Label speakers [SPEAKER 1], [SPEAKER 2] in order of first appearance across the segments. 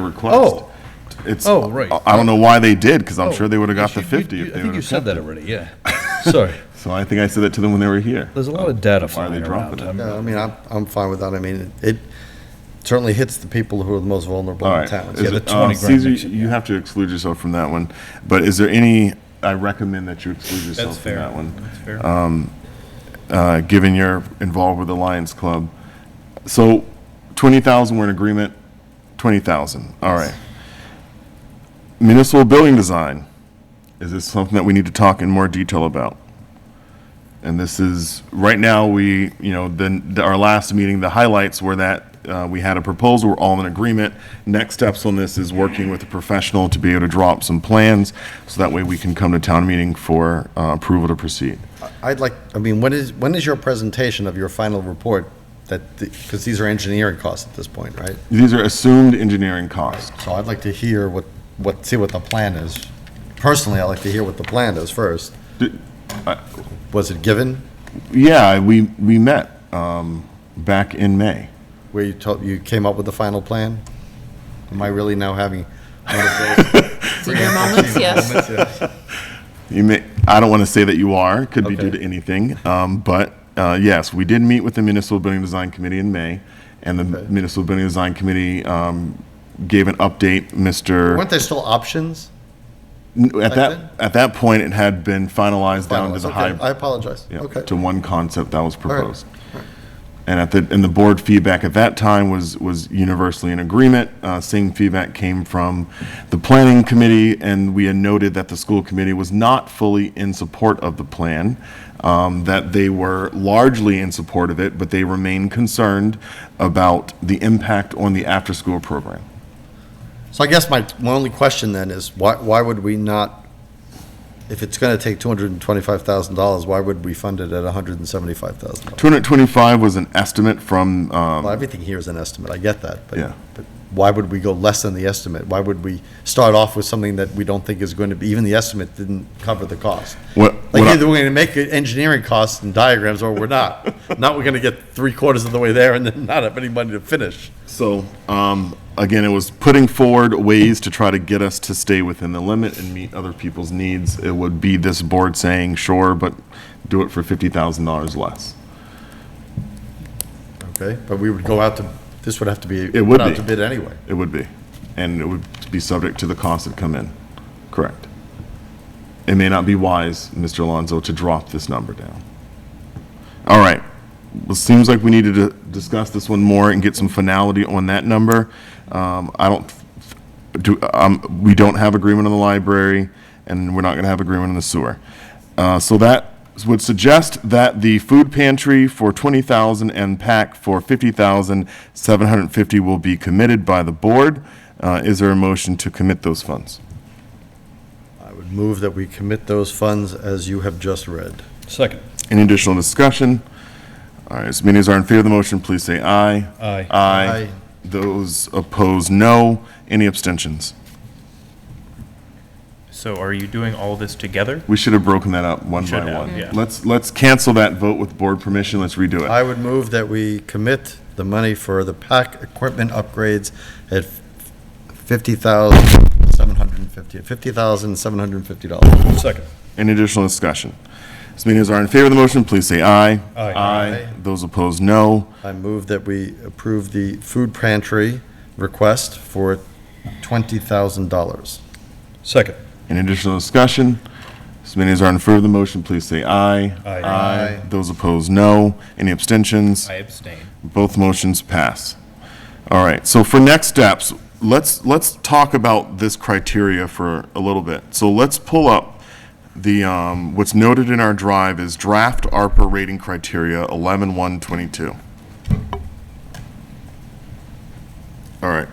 [SPEAKER 1] request.
[SPEAKER 2] Oh.
[SPEAKER 1] It's,
[SPEAKER 2] Oh, right.
[SPEAKER 1] I- I don't know why they did, because I'm
[SPEAKER 2] Oh,
[SPEAKER 1] sure they would have got the
[SPEAKER 2] you- you-
[SPEAKER 1] 50 if
[SPEAKER 2] I
[SPEAKER 1] they
[SPEAKER 2] think
[SPEAKER 1] would
[SPEAKER 2] you
[SPEAKER 1] have
[SPEAKER 2] said
[SPEAKER 1] kept
[SPEAKER 2] that
[SPEAKER 1] it.
[SPEAKER 2] already, yeah. Sorry.
[SPEAKER 1] So I think I said that to them when they were here.
[SPEAKER 2] There's a lot of data
[SPEAKER 1] Why are they
[SPEAKER 2] flying around.
[SPEAKER 1] dropping it?
[SPEAKER 2] I'm-
[SPEAKER 3] Yeah, I mean, I'm, I'm fine with that. I mean, it certainly hits the people who are the most vulnerable
[SPEAKER 1] All
[SPEAKER 3] in
[SPEAKER 1] right.
[SPEAKER 3] towns.
[SPEAKER 1] Is
[SPEAKER 2] the
[SPEAKER 1] it-
[SPEAKER 2] 20
[SPEAKER 1] uh,
[SPEAKER 2] grand
[SPEAKER 1] Caesar,
[SPEAKER 2] makes it,
[SPEAKER 1] you have to exclude yourself from that one, but is there any, I recommend that you exclude
[SPEAKER 4] That's
[SPEAKER 1] yourself from
[SPEAKER 4] fair.
[SPEAKER 1] that one, Um,
[SPEAKER 4] That's fair.
[SPEAKER 1] uh, given you're involved with the Lions Club. So 20,000, we're in agreement, 20,000, all right. Municipal building design, is this something that we need to talk in more detail about? And this is, right now, we, you know, then, our last meeting, the highlights were that uh, we had a proposal, we're all in agreement. Next steps on this is working with a professional to be able to draw up some plans, so that way we can come to town meeting for uh, approval to proceed.
[SPEAKER 3] I'd like, I mean, when is, when is your presentation of your final report? That, because these are engineering costs at this point, right?
[SPEAKER 1] These are assumed engineering costs.
[SPEAKER 3] So I'd like to hear what, what, see what the plan is. Personally, I'd like to hear what the plan is first.
[SPEAKER 1] D-
[SPEAKER 3] Was it given?
[SPEAKER 1] Yeah, we, we met um, back in May.
[SPEAKER 3] Where you told, you came up with the final plan? Am I really now having one of those?
[SPEAKER 5] Did your moments, yes.
[SPEAKER 1] You may, I don't want to say that you are, could be due
[SPEAKER 3] Okay.
[SPEAKER 1] to anything, um, but, uh, yes, we did meet with the Municipal Building Design Committee in May, and the Municipal Building Design Committee, um, gave an update, Mr.
[SPEAKER 3] Weren't there still options?
[SPEAKER 1] N- At
[SPEAKER 3] back then?
[SPEAKER 1] that, at that point, it had been finalized down to the
[SPEAKER 3] Finalized, okay,
[SPEAKER 1] high.
[SPEAKER 3] I apologize.
[SPEAKER 1] yeah,
[SPEAKER 3] Okay.
[SPEAKER 1] To one concept that was proposed. And at the, and the board feedback at that time was, was universally in agreement. Uh, same feedback came from the planning committee, and we had noted that the school committee was not fully in support of the plan, um, that they were largely in support of it, but they remain concerned about the impact on the after-school program.
[SPEAKER 3] So I guess my, my only question then is, why, why would we not, if it's gonna take two hundred and twenty-five thousand dollars, why would we fund it at hundred and seventy-five thousand dollars?
[SPEAKER 1] 225 was an estimate from, um,
[SPEAKER 3] Well, everything here is an estimate, I get that, but.
[SPEAKER 1] Yeah.
[SPEAKER 3] but Why would we go less than the estimate? Why would we start off with something that we don't think is going to be, even the estimate didn't cover the cost?
[SPEAKER 1] What- what
[SPEAKER 3] Like
[SPEAKER 1] I-
[SPEAKER 3] either we're gonna make it engineering costs and diagrams, or we're not. Not we're gonna get three quarters of the way there and then not have any money to finish.
[SPEAKER 1] So, um, again, it was putting forward ways to try to get us to stay within the limit and meet other people's needs. It would be this board saying, sure, but do it for fifty thousand dollars less.
[SPEAKER 3] Okay, but we would go out to, this would have to be.
[SPEAKER 1] It would
[SPEAKER 3] put out
[SPEAKER 1] be.
[SPEAKER 3] to bid anyway.
[SPEAKER 1] It would be, and it would be subject to the costs that come in. Correct. It may not be wise, Mr. Alonso, to drop this number down. All right. Well, seems like we needed to discuss this one more and get some finality on that number. Um, I don't, do, um, we don't have agreement on the library, and we're not gonna have agreement on the sewer. Uh, so that would suggest that the food pantry for twenty thousand and pack for fifty thousand, seven hundred and fifty will be committed by the board. Uh, is there a motion to commit those funds?
[SPEAKER 3] I would move that we commit those funds as you have just read.
[SPEAKER 2] Second.
[SPEAKER 1] Any additional discussion? All right, as many as are in favor of the motion, please say aye.
[SPEAKER 2] Aye.
[SPEAKER 1] Aye.
[SPEAKER 3] Aye.
[SPEAKER 1] Those opposed, no. Any abstentions?
[SPEAKER 4] So are you doing all this together?
[SPEAKER 1] We should have broken that up one
[SPEAKER 4] Should
[SPEAKER 1] by
[SPEAKER 4] have,
[SPEAKER 1] one.
[SPEAKER 4] yeah.
[SPEAKER 1] Let's, let's cancel that vote with board permission. Let's redo it.
[SPEAKER 3] I would move that we commit the money for the PAC equipment upgrades at fifty thousand seven hundred and fifty, fifty thousand seven hundred and fifty dollars.
[SPEAKER 2] Second.
[SPEAKER 1] Any additional discussion? As many as are in favor of the motion, please say aye.
[SPEAKER 2] Aye.
[SPEAKER 1] Aye. Those opposed, no.
[SPEAKER 3] I move that we approve the food pantry request for twenty thousand dollars.
[SPEAKER 2] Second.
[SPEAKER 1] Any additional discussion? As many as are in favor of the motion, please say aye.
[SPEAKER 2] Aye.
[SPEAKER 3] Aye.
[SPEAKER 1] Those opposed, no. Any abstentions?
[SPEAKER 4] I abstain.
[SPEAKER 1] Both motions pass. All right, so for next steps, let's, let's talk about this criteria for a little bit. So let's pull up the, um, what's noted in our drive is draft ARPA rating criteria 11-122. All right.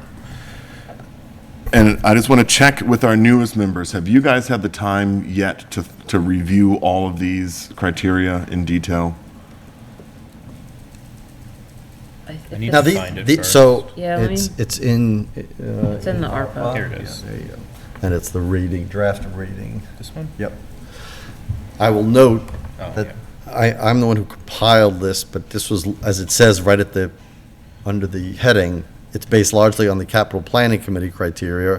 [SPEAKER 1] And I just want to check with our newest members, have you guys had the time yet to, to review all of these criteria in detail?
[SPEAKER 4] I need
[SPEAKER 3] Now,
[SPEAKER 4] to
[SPEAKER 3] the,
[SPEAKER 4] find it
[SPEAKER 3] the-
[SPEAKER 4] first.
[SPEAKER 3] so,
[SPEAKER 5] Yeah, let me-
[SPEAKER 3] it's, it's in, uh,
[SPEAKER 5] It's in the ARPA.
[SPEAKER 4] Here it is.
[SPEAKER 3] there you go. And it's the rating, draft rating.
[SPEAKER 4] This one?
[SPEAKER 3] Yep. I will note
[SPEAKER 4] Oh,
[SPEAKER 3] that I, I'm the one who compiled this, but this was, as it says right at the, under the heading, It's based largely on the capital planning committee criteria